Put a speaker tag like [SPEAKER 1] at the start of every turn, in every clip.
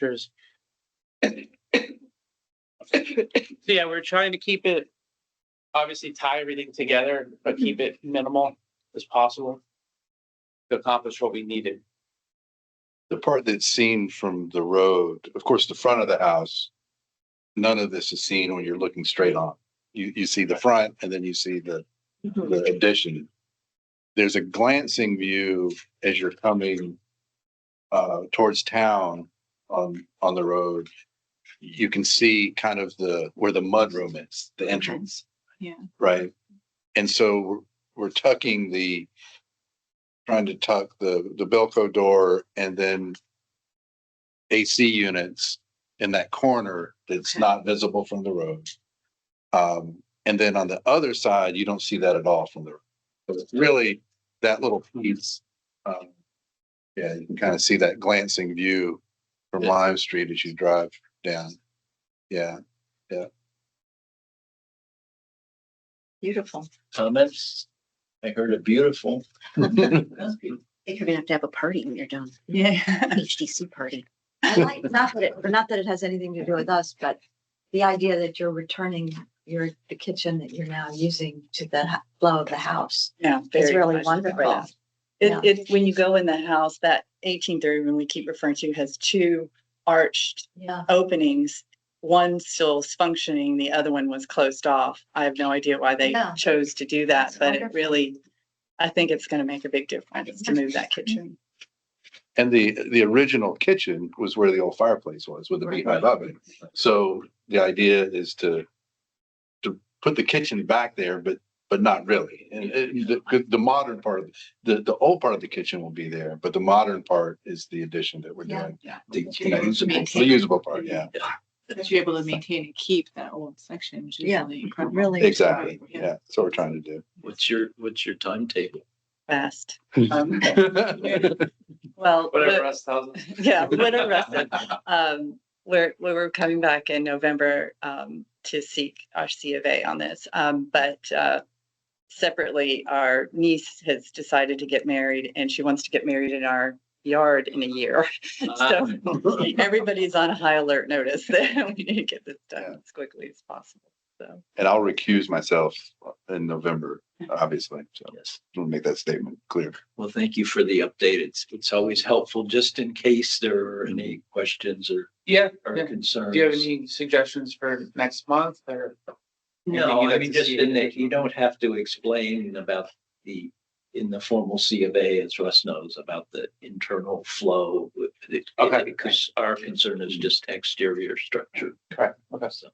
[SPEAKER 1] pictures. Yeah, we're trying to keep it, obviously tie everything together, but keep it minimal as possible to accomplish what we needed.
[SPEAKER 2] the part that's seen from the road, of course, the front of the house, none of this is seen when you're looking straight on. You, you see the front and then you see the,
[SPEAKER 3] Mm-hmm.
[SPEAKER 2] the addition. There's a glancing view as you're coming uh, towards town on, on the road. You can see kind of the, where the mudroom is, the entrance.
[SPEAKER 3] Yeah.
[SPEAKER 2] Right? And so we're- we're tucking the trying to tuck the, the Belco door and then AC units in that corner that's
[SPEAKER 3] Okay.
[SPEAKER 2] not visible from the road. Um, and then on the other side, you don't see that at all from the, road. So it's really that little piece. um, Yeah, you can kind of see that glancing view from
[SPEAKER 1] Yeah.
[SPEAKER 2] Lime Street as you drive down. Yeah,
[SPEAKER 3] Beautiful.
[SPEAKER 4] comments? I heard it beautiful.
[SPEAKER 5] think you're gonna have to have a party when you're done,
[SPEAKER 3] Yeah.
[SPEAKER 5] HDC party.
[SPEAKER 6] I like, not that it, not that it has anything to do with us, but the idea that you're returning your, the kitchen that you're now using to the h- flow of the house
[SPEAKER 3] Yeah.
[SPEAKER 6] is
[SPEAKER 3] very
[SPEAKER 6] really
[SPEAKER 3] much
[SPEAKER 6] wonderful.
[SPEAKER 3] different.
[SPEAKER 6] Yeah.
[SPEAKER 3] It, it, when you go in the house, that eighteen thirty room we keep referring to has two arched
[SPEAKER 6] Yeah.
[SPEAKER 3] openings. One still is functioning, the other one was closed off. I have no idea why they
[SPEAKER 6] Yeah.
[SPEAKER 3] chose to do that,
[SPEAKER 6] That's
[SPEAKER 3] but it
[SPEAKER 6] wonderful.
[SPEAKER 3] really, I think it's gonna make a big difference to move that kitchen.
[SPEAKER 2] and the, the original kitchen was where the old fireplace was with the
[SPEAKER 6] Right.
[SPEAKER 2] beehive oven. So the idea is to, to put the kitchen back there, but, but not really. And it- the, the- the modern part, of the, the old part of the kitchen will be there, but the modern part is the addition that we're
[SPEAKER 6] Yeah.
[SPEAKER 2] doing.
[SPEAKER 7] Yeah.
[SPEAKER 2] The you know, usable, the
[SPEAKER 7] Maintain.
[SPEAKER 2] usable part, yeah,
[SPEAKER 7] That you're able to maintain and keep that old section, which is
[SPEAKER 6] Yeah,
[SPEAKER 7] really incredible.
[SPEAKER 6] really.
[SPEAKER 2] exactly. Yeah, that's what we're trying to do.
[SPEAKER 4] What's your, what's your timetable?
[SPEAKER 3] Fast. Um,
[SPEAKER 2] Yeah,
[SPEAKER 3] Well,
[SPEAKER 1] Whatever Russ tells us.
[SPEAKER 3] yeah, whatever. I said. um, we're, we we're coming back in November, um, to seek our C of A on this. Um, but, uh, separately, our niece has decided to get married and she wants to get married in our yard in a year. So everybody's on high alert notice that we need to get this
[SPEAKER 2] Yeah.
[SPEAKER 3] done as quickly as possible. So,
[SPEAKER 2] And I'll recuse myself in November, obviously, so
[SPEAKER 4] Yes.
[SPEAKER 2] we'll make that statement clear.
[SPEAKER 4] Well, thank you for the update. It's, it's always helpful just in case there are any questions or,
[SPEAKER 1] Yeah,
[SPEAKER 4] or
[SPEAKER 1] yeah.
[SPEAKER 4] concerns.
[SPEAKER 1] do you have any suggestions for next month or? Anything
[SPEAKER 4] No,
[SPEAKER 1] you'd
[SPEAKER 4] I
[SPEAKER 1] like
[SPEAKER 4] mean,
[SPEAKER 1] to
[SPEAKER 4] just
[SPEAKER 1] see?
[SPEAKER 4] in that you don't have to explain about the, in the formal C of A, as Russ knows, about the internal flow. with it-
[SPEAKER 1] Okay.
[SPEAKER 4] Because our concern is just exterior structure.
[SPEAKER 1] Correct, okay.
[SPEAKER 4] So,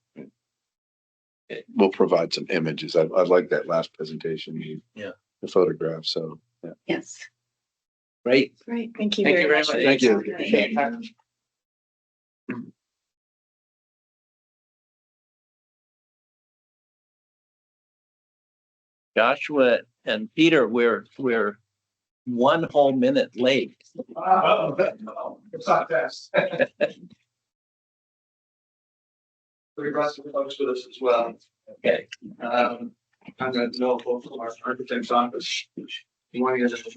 [SPEAKER 2] We'll provide some images. I, I like that last presentation. you-
[SPEAKER 4] Yeah.
[SPEAKER 2] The photograph, so. yeah.
[SPEAKER 5] Yes.
[SPEAKER 4] Great.
[SPEAKER 7] Great.
[SPEAKER 3] thank you
[SPEAKER 1] Thank you
[SPEAKER 3] very
[SPEAKER 1] very
[SPEAKER 3] much.
[SPEAKER 1] much.
[SPEAKER 3] for your
[SPEAKER 4] Thank you.
[SPEAKER 3] time.
[SPEAKER 1] Appreciate your time.
[SPEAKER 4] Joshua and Peter, we're, we're one whole minute late.
[SPEAKER 1] Wow, it's not fast.
[SPEAKER 8] We brought some folks with us as well.
[SPEAKER 4] Okay.
[SPEAKER 8] Um, I'm gonna know both from our architect's office. You want to get this?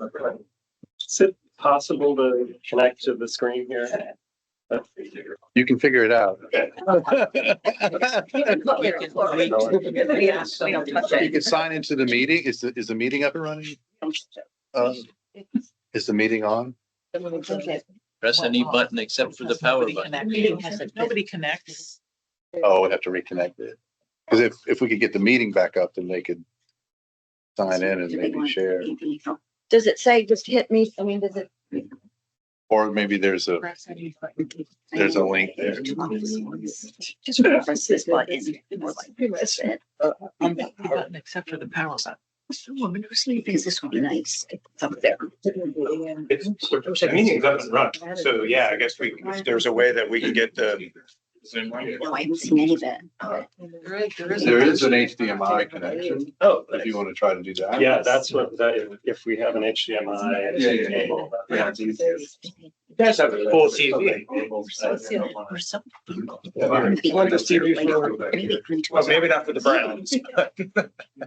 [SPEAKER 9] Is it possible to connect to the screen here?
[SPEAKER 2] You can figure it out.
[SPEAKER 4] We can- we can-
[SPEAKER 5] Yeah, we don't touch
[SPEAKER 2] You can sign into the meeting. Is the, is the meeting up and running? Uh, Is the meeting on?
[SPEAKER 4] Press any button except for the power button.
[SPEAKER 7] Nobody connects.
[SPEAKER 2] Oh, we'd have to reconnect it. Because if, if we could get the meeting back up, then they could sign in and maybe share,
[SPEAKER 6] Does it say just hit me? I mean, does it?
[SPEAKER 2] or maybe there's a, there's a link there.
[SPEAKER 5] Just reference this button. or like press it.
[SPEAKER 7] Button except for the power button.
[SPEAKER 5] Woman who's sleeping is this one nice. It's up there.
[SPEAKER 8] It's, the meeting's up and running, so yeah, I guess we, if there's a way that we can get the. Zoom link.
[SPEAKER 5] No, I haven't seen any of that.
[SPEAKER 2] There is an HDMI connection,
[SPEAKER 4] Oh,
[SPEAKER 2] if you want to try to do that.
[SPEAKER 9] Yeah, that's what, that, if we have an HDMI.
[SPEAKER 8] Yeah, yeah, yeah.
[SPEAKER 9] cable, that-
[SPEAKER 8] Yeah, it's easy.
[SPEAKER 5] That's
[SPEAKER 8] have a full TV.
[SPEAKER 5] Or something.
[SPEAKER 8] I want this TV for-
[SPEAKER 5] Maybe green to-
[SPEAKER 8] Well, maybe not for the Browns.
[SPEAKER 2] Yeah.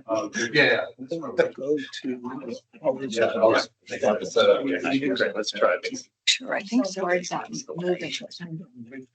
[SPEAKER 4] Go to.
[SPEAKER 8] Yeah, all right. They got it set up. Okay, Oh, Let's try it.
[SPEAKER 6] Sure, I think so. Or is that moving?